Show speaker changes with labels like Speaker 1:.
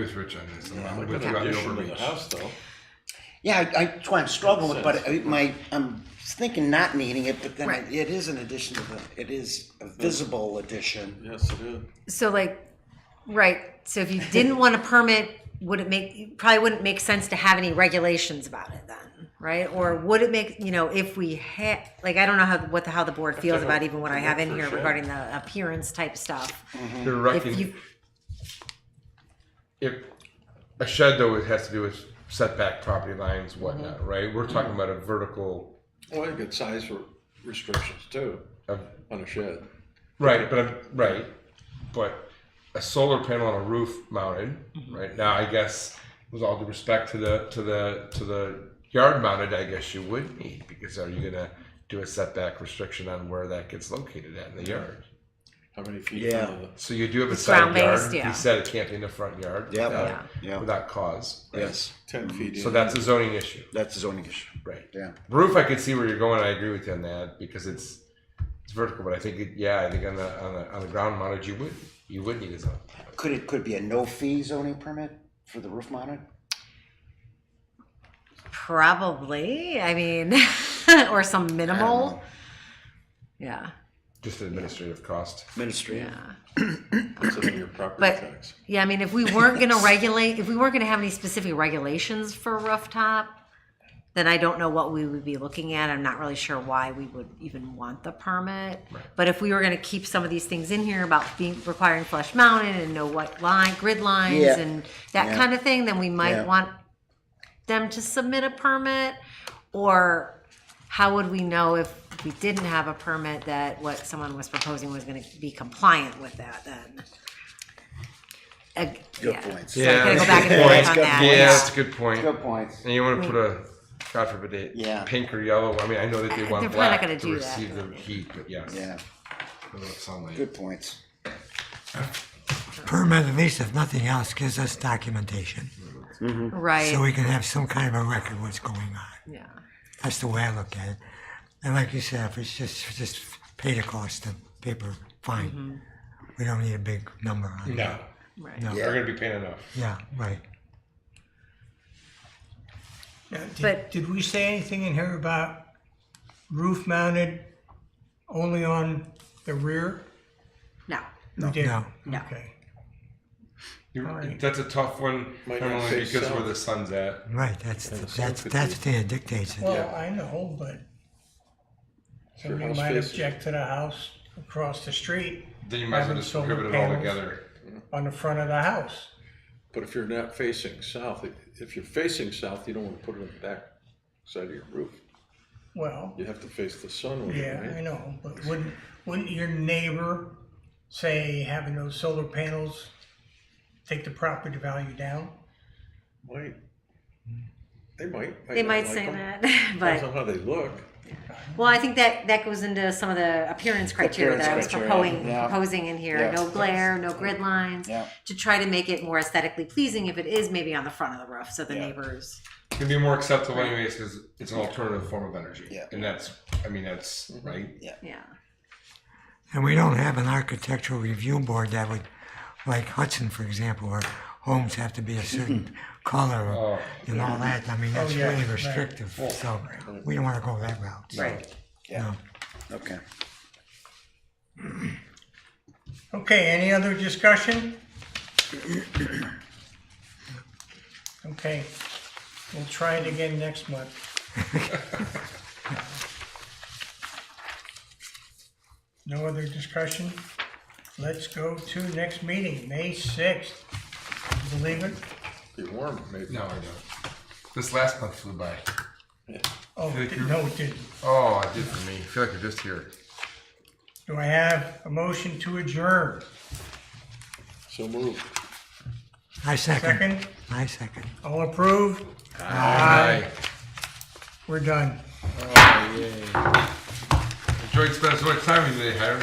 Speaker 1: with Rich on this. I'm- I'm
Speaker 2: Like
Speaker 1: with
Speaker 2: an
Speaker 1: you on the
Speaker 2: addition to the
Speaker 1: overreach.
Speaker 2: house though.
Speaker 3: Yeah, I, I, that's why I'm struggling with, but
Speaker 2: Sense.
Speaker 3: I- my, I'm thinking not needing it, but then
Speaker 4: Right.
Speaker 3: it is an addition to the, it is a visible addition.
Speaker 2: Yes, it is.
Speaker 4: So like, right, so if you didn't want a permit, would it make, probably wouldn't make sense to have any regulations about it then, right? Or would it make, you know, if we had, like, I don't know how, what, the how the board feels about even what I have in here regarding the appearance type stuff.
Speaker 1: You're
Speaker 4: If
Speaker 1: erecting,
Speaker 4: you,
Speaker 1: if, a shed though, it has to do with setback property lines,
Speaker 4: Mm-hmm.
Speaker 1: whatnot, right? We're talking about a vertical,
Speaker 2: Well, you get size re- restrictions too
Speaker 1: of
Speaker 2: on a shed.
Speaker 1: Right, but I'm, right, but a solar panel on a roof mounted,
Speaker 4: Mm-hmm.
Speaker 1: right now, I guess, with all due respect to the to the to the yard mounted, I guess you would need because are you gonna do a setback restriction on where that gets located at in the yard?
Speaker 2: How many feet?
Speaker 3: Yeah.
Speaker 2: from the-
Speaker 1: So you do have a
Speaker 4: It's
Speaker 1: side yard.
Speaker 4: ground-based,
Speaker 1: You
Speaker 4: yeah.
Speaker 1: said it can't be in the front yard.
Speaker 3: Yep.
Speaker 1: without,
Speaker 3: Yeah. Yeah.
Speaker 1: without cause. right?
Speaker 3: Yes,
Speaker 2: Ten feet.
Speaker 1: So
Speaker 2: in.
Speaker 1: that's a zoning issue,
Speaker 3: that's a zoning issue.
Speaker 1: right?
Speaker 3: Yeah.
Speaker 1: Roof, I can see where you're going. I agree with you on that because it's it's vertical, but I think it, yeah, I think on the on the on the ground mounted, you would you would need a zone.
Speaker 3: Could it, could it be a no fee zoning permit for the roof mounted?
Speaker 4: probably, I mean, or some minimal. Yeah,
Speaker 1: Just administrative cost.
Speaker 3: Ministry.
Speaker 4: yeah.
Speaker 2: That's under your property
Speaker 4: But-
Speaker 2: tax.
Speaker 4: Yeah, I mean, if we weren't gonna regulate, if we weren't gonna have any specific regulations for rooftop, then I don't know what we would be looking at. I'm not really sure why we would even want the permit. But if we were gonna keep some of these things in here about being, requiring flush mounted and know what line, grid lines
Speaker 3: Yeah.
Speaker 4: and that
Speaker 3: Yeah.
Speaker 4: kind of thing, then we might
Speaker 3: Yeah.
Speaker 4: want them to submit a permit? Or how would we know if we didn't have a permit that what someone was proposing was gonna be compliant with that then? Ag-
Speaker 3: Good
Speaker 4: yeah.
Speaker 3: points.
Speaker 4: So I gotta
Speaker 1: that's
Speaker 4: go
Speaker 1: a
Speaker 4: back
Speaker 1: good
Speaker 4: and
Speaker 1: point.
Speaker 4: forth on
Speaker 3: Good
Speaker 4: that.
Speaker 3: point.
Speaker 1: Yeah, that's a good point.
Speaker 3: Good points.
Speaker 1: And you want to put a, God forbid it,
Speaker 3: Mm. Yeah.
Speaker 1: pink or yellow. I mean, I know that they
Speaker 4: Uh,
Speaker 1: want
Speaker 4: they're probably not
Speaker 1: black
Speaker 4: gonna
Speaker 1: to
Speaker 4: do that,
Speaker 1: receive the heat, but yes.
Speaker 3: Yeah,
Speaker 1: I know it sound like-
Speaker 3: good points.
Speaker 5: permit, at least if nothing else, gives us documentation. So
Speaker 4: Right,
Speaker 5: we can have some kind of a record of what's going on.
Speaker 4: yeah.
Speaker 5: That's the way I look at it. And like you said, if it's just, just pay the cost of paper, fine. We don't need a big number on it.
Speaker 1: No,
Speaker 4: Right.
Speaker 1: they're going to be paying enough.
Speaker 5: Yeah, right.
Speaker 6: Now,
Speaker 4: But-
Speaker 6: did, did we say anything in here about roof mounted only on the rear?
Speaker 4: No,
Speaker 6: No. did
Speaker 5: No.
Speaker 4: No.
Speaker 6: Okay.
Speaker 1: You-
Speaker 6: right.
Speaker 1: That's a tough one,
Speaker 2: Might
Speaker 1: not
Speaker 2: not
Speaker 1: only
Speaker 2: say
Speaker 1: because
Speaker 2: so.
Speaker 1: where the sun's at.
Speaker 5: Right, that's, that's, that's the thing that dictates it.
Speaker 6: Well, I know, but
Speaker 2: Your
Speaker 6: somebody
Speaker 2: house
Speaker 6: might
Speaker 2: faces-
Speaker 6: object to the house across the street
Speaker 1: Then you might as well
Speaker 6: Having
Speaker 1: just
Speaker 6: solar
Speaker 1: prohibit it all
Speaker 6: panels.
Speaker 1: together.
Speaker 6: on the front of the house.
Speaker 2: But if you're not facing south, if you're facing south, you don't want to put it on the back side of your roof.
Speaker 6: Well,
Speaker 2: You have to face the sun with
Speaker 6: yeah,
Speaker 2: it, right?
Speaker 6: I know, but wouldn't wouldn't your neighbor say having those solar panels take the property value down?
Speaker 2: Might. They might.
Speaker 4: they might
Speaker 2: not like
Speaker 4: say
Speaker 2: 'em.
Speaker 4: that,
Speaker 2: Depends
Speaker 4: but,
Speaker 2: on how they look.
Speaker 4: well, I think that, that goes into some of the appearance criteria that I was
Speaker 3: Appearance
Speaker 4: proposing,
Speaker 3: criteria, yeah.
Speaker 4: proposing in here.
Speaker 3: Yeah.
Speaker 4: No glare, no grid lines.
Speaker 3: Yeah.
Speaker 4: To try to make it more aesthetically pleasing if it is maybe on the front of the roof, so the neighbors.
Speaker 1: It can be more acceptable anyways because it's an alternative form of energy.
Speaker 3: Yeah.
Speaker 1: And that's, I mean, that's, right?
Speaker 4: Yeah.
Speaker 5: And we don't have an architectural review board that would, like Hudson, for example, where homes have to be a certain color
Speaker 1: Oh.
Speaker 5: and all that. I mean, that's
Speaker 6: yeah,
Speaker 5: really
Speaker 6: right.
Speaker 5: restrictive, so we don't wanna go that route.
Speaker 4: Right.
Speaker 3: Yeah,
Speaker 5: No.
Speaker 3: okay.
Speaker 6: Okay, any other discussion? Okay, we'll try it again next month. No other discussion? Let's go to next meeting, May sixth. Believe it?
Speaker 2: Be warm, maybe.
Speaker 1: No, I don't. This last month flew by.
Speaker 6: Oh,
Speaker 1: Thank you.
Speaker 6: no, it didn't.
Speaker 1: Oh, it did for me. I feel like I'm just here.
Speaker 6: Do I have a motion to adjourn?
Speaker 2: So move.
Speaker 5: I second,
Speaker 6: Second,
Speaker 5: I second.
Speaker 6: all approved?
Speaker 1: Hi.
Speaker 6: We're done.
Speaker 1: Enjoyed spending so much time with you today, Hiram.